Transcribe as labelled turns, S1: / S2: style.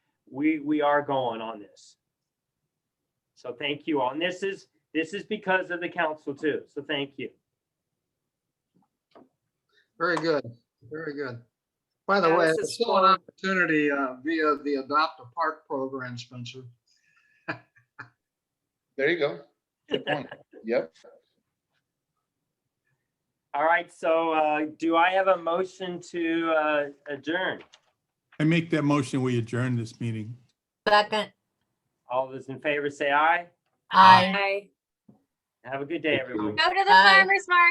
S1: we, we are going on this. So thank you all. And this is, this is because of the council too. So thank you.
S2: Very good, very good. By the way,
S3: Yes,
S2: it's
S3: it's
S2: still an
S3: fun.
S2: opportunity uh, via the Adopt a Park program, Spencer.
S4: There you go. Good point. Yep.
S1: All right. So, uh, do I have a motion to, uh, adjourn?
S5: I make that motion, we adjourn this meeting.
S6: Second,
S1: All those in favor say aye.
S6: aye.
S3: Aye.
S1: Have a good day,
S4: Thank you.
S1: everyone.
S7: Go to the
S6: Bye.
S7: farmer's market.